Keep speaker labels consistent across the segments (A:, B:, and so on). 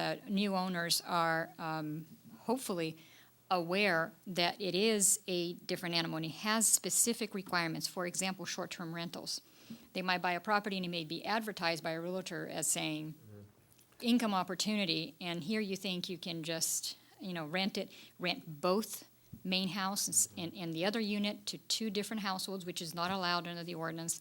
A: that new owners are um, hopefully aware that it is a different animal and it has specific requirements. For example, short-term rentals. They might buy a property and it may be advertised by a realtor as saying income opportunity, and here you think you can just, you know, rent it, rent both main house and s- and, and the other unit to two different households, which is not allowed under the ordinance.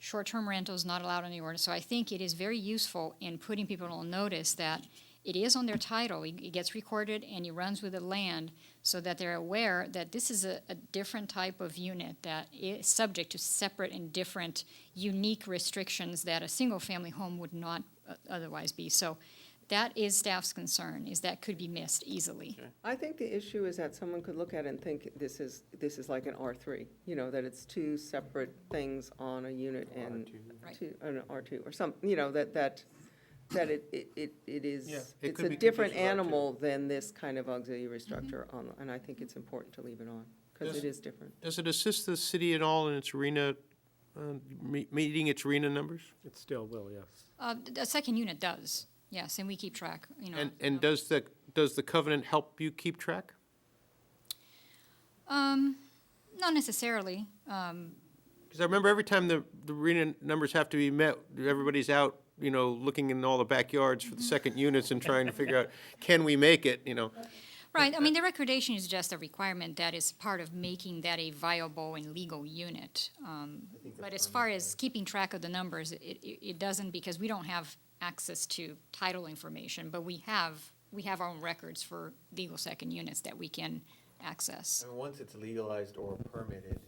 A: Short-term rental is not allowed under the ordinance, so I think it is very useful in putting people on notice that it is on their title, it it gets recorded and it runs with the land, so that they're aware that this is a, a different type of unit that is subject to separate and different, unique restrictions that a single-family home would not uh, otherwise be. So that is staff's concern, is that could be missed easily.
B: I think the issue is that someone could look at it and think this is, this is like an R3, you know, that it's two separate things on a unit and
A: Right.
B: two, an R2 or some, you know, that, that, that it, it, it it
C: Yeah,
B: is,
C: it
B: it's
C: could
B: a
C: be
B: different
C: confused with R2.
B: animal than this kind of auxiliary structure on, and I think it's important to leave it on, because
C: Yes.
B: it is different.
C: Does it assist the city at all in its arena, uh, me- meeting its arena numbers?
D: It still will, yes.
A: Uh, th- the second unit does, yes, and we keep track, you know.
C: And, and
A: of-
C: does the, does the covenant help you keep track?
A: Um, not necessarily, um,
C: Because I remember every time the, the arena numbers have to be met, everybody's out, you know, looking in all the backyards for the second units and trying to figure out, can we make it, you know?
A: right, I
C: uh,
A: mean, the recordation is just a requirement that is part of making that a viable and legal unit. Um, but as far as keeping track of the numbers, it, it, it doesn't, because we don't have access to title information, but we have, we have our own records for legal second units that we can access.
E: I mean, once it's legalized or permitted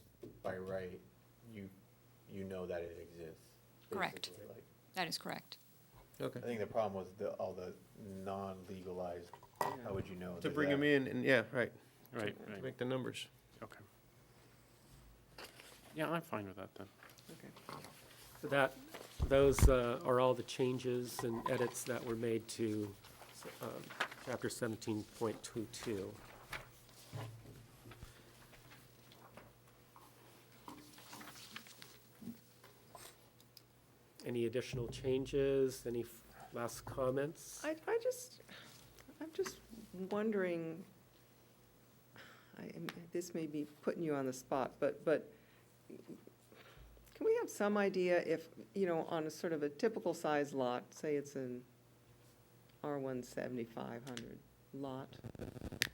E: by right, you, you know that it exists.
A: Correct.
E: basically, like.
A: That is correct.
C: Okay.
E: I think the problem was the, all the non-legalized, how would you know?
C: To
E: that
C: bring
E: that-
C: them in and, yeah, right,
D: Right,
C: to
D: right,
C: make the numbers.
D: okay. Yeah, I'm fine with that then.
B: Okay.
D: So that, those uh, are all the changes and edits that were made to um, chapter seventeen point two two. Any additional changes, any f- last comments?
B: I, I just, I'm just wondering, I, am- this may be putting you on the spot, but, but can we have some idea if, you know, on a sort of a typical size lot, say it's an R one seventy-five hundred lot,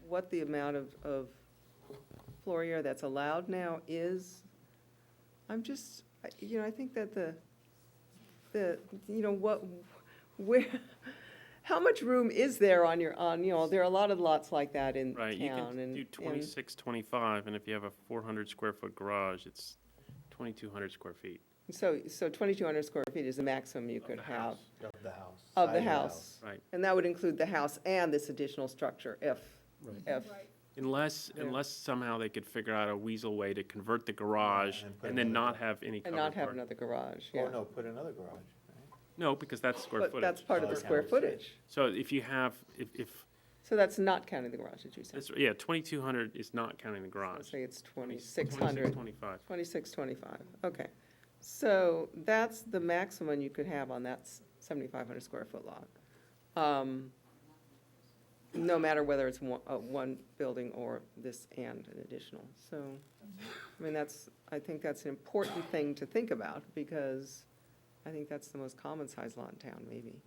B: what the amount of, of floor area that's allowed now is? I'm just, I- you know, I think that the, the, you know, what, where, how much room is there on your, on, you know, there are a lot of lots like that in
F: Right, you
B: town
F: can
B: and.
F: do
B: and-
F: twenty-six, twenty-five, and if you have a four hundred square foot garage, it's twenty-two hundred square feet.
B: So, so twenty-two hundred square feet is the maximum you
F: Of
B: could
F: the
B: have.
F: house.
E: Of the house.
B: Of
E: side
B: the house.
F: Right.
B: And that would include the house and this additional structure, if,
D: Right.
B: if,
F: Unless,
B: Yeah.
F: unless somehow they could figure out a weasel way to convert the garage
E: And put
F: and then
E: another-
F: not have any
B: and not
F: covered
B: have
F: part.
B: another garage, yeah.
E: Or Oh, no, put another garage, right?
F: No, because that's square
B: But that's
F: footage.
B: part of the
E: Okay.
B: square footage.
F: So if you have, if, if,
B: So that's not counting the garage, did you say?
F: that's- yeah, twenty-two hundred is not counting the
B: Let's
F: garage.
B: Say it's
F: 26,
B: twenty-six hundred,
F: Twenty-five.
B: twenty-six, twenty-five, okay. So that's the maximum you could have on that seventy-five hundred square foot lot. Um, No matter whether it's one, uh, one building or this and an additional, so, I mean, that's, I think that's an important thing to think about, because I think that's the most common size lot in town, maybe.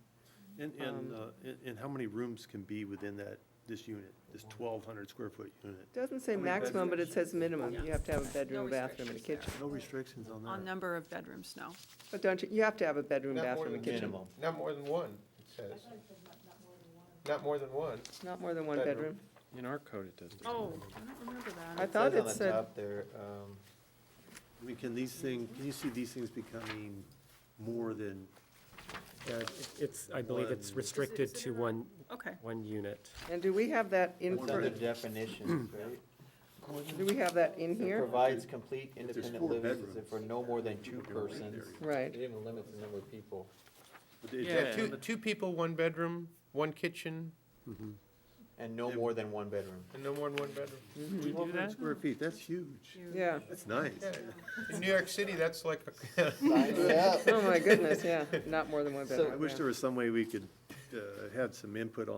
G: And,
B: Um,
G: and, uh, and- and how many rooms can be within that, this unit, this twelve hundred square foot unit?
B: Doesn't say maximum, but it says minimum, you have to have a bedroom, a bathroom, and a kitchen.
G: No restrictions on
H: On
G: that.
H: number of bedrooms, no.
B: But don't you, you have to have a bedroom,
C: Not more
B: bathroom, and
C: than
B: kitchen,
E: Minimum.
C: Not more than one, it says. Not more than one.
B: not more than one
C: Bedroom.
B: bedroom?
F: In our code, it doesn't.
H: Oh, I don't remember
B: I
H: that.
B: thought
E: says
B: it
E: on the
B: said-
E: top There, um,
G: I mean, can these things, can you see these things becoming more than,
D: Yeah, it- Uh, It's, I believe it's
G: One.
D: restricted to one,
H: Okay.
D: one unit.
B: And do we have that in,
E: it's under
B: do
E: definitions, right?
B: we have that in
E: It
B: here?
E: provides complete independent
G: four
E: living
G: bedrooms,
E: for no more than two
G: you can live there.
E: persons. It
B: Right,
E: even limits the number of people.
G: but it-
F: Yeah.
C: Yeah, two, two people, one bedroom, one kitchen,
E: And no
G: Yeah.
E: more than one bedroom.
C: and no more than one bedroom.
F: Do we do
G: 1,200
F: that?
G: Square feet, that's huge.
B: yeah,
G: That's nice.
C: Yeah. In New York City, that's like, a-
B: oh my goodness, yeah, not more than one bedroom.
G: I wish
B: yeah.
G: there was some way we could, uh, have some input on.